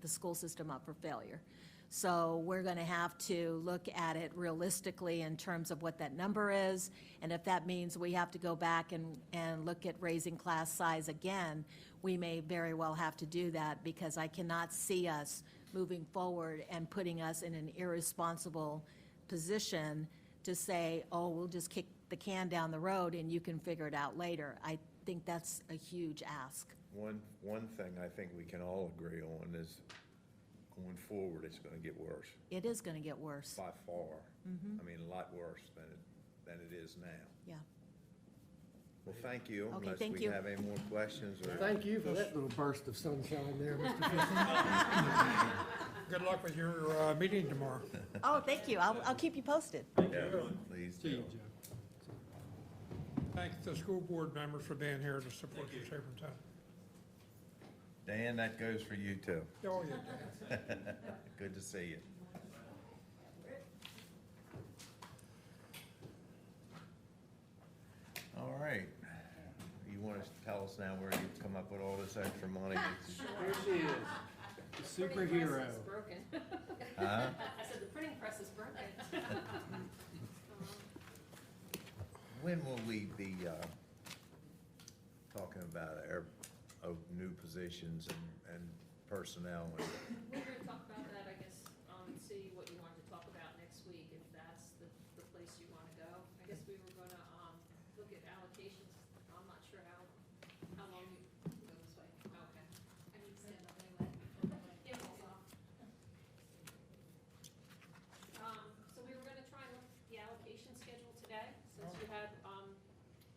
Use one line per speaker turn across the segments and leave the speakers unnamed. the school system up for failure. So we're going to have to look at it realistically in terms of what that number is. And if that means we have to go back and, and look at raising class size again, we may very well have to do that because I cannot see us moving forward and putting us in an irresponsible position to say, oh, we'll just kick the can down the road and you can figure it out later. I think that's a huge ask.
One, one thing I think we can all agree on is going forward, it's gonna get worse
It is going to get worse.
by far.
Mm-hmm.
I mean, a lot worse than it, than it is now.
Yeah.
Well, thank you,
Okay,
unless
thank
we
you.
have any more questions or.
Thank you for that little burst of sunshine there, Mr. Fisher.
Good luck with your uh, meeting tomorrow.
Oh, thank you. I'll, I'll keep you posted.
Yeah, Please do.
Thank the school board members for being here to support the superintendent.
Dan, that goes for you too.
Oh, yeah.
Good to see you. All right. You want to tell us now where you've come up with all this extra money?
Here she is, the superhero.
Printing press is broken.
Huh?
I said the printing press is broken. Um,
When will we be, uh, talking about our, of new positions and, and personnel? and-
We're gonna talk about that, I guess, um, and see what you wanted to talk about next week, if that's the, the place you wanna go. I guess we were gonna, um, look at allocations, I'm not sure how, how long you go this way. Okay. I need to stand up anyway. Yeah, hold on. Um, so we were gonna try and look at the allocation schedule today, since you had, um,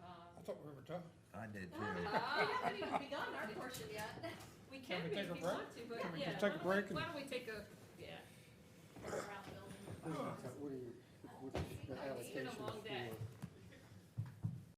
uh,
I thought we were done.
I did
Oh, we
too.
haven't even begun our portion yet. We can
we
be
take a
if you
break?
want to, but
Can we
yeah.
just take a
why don't we-
break and-
Why don't we take a, yeah. Around the building.
What are your, what's your
It's been a long
allocation?
day.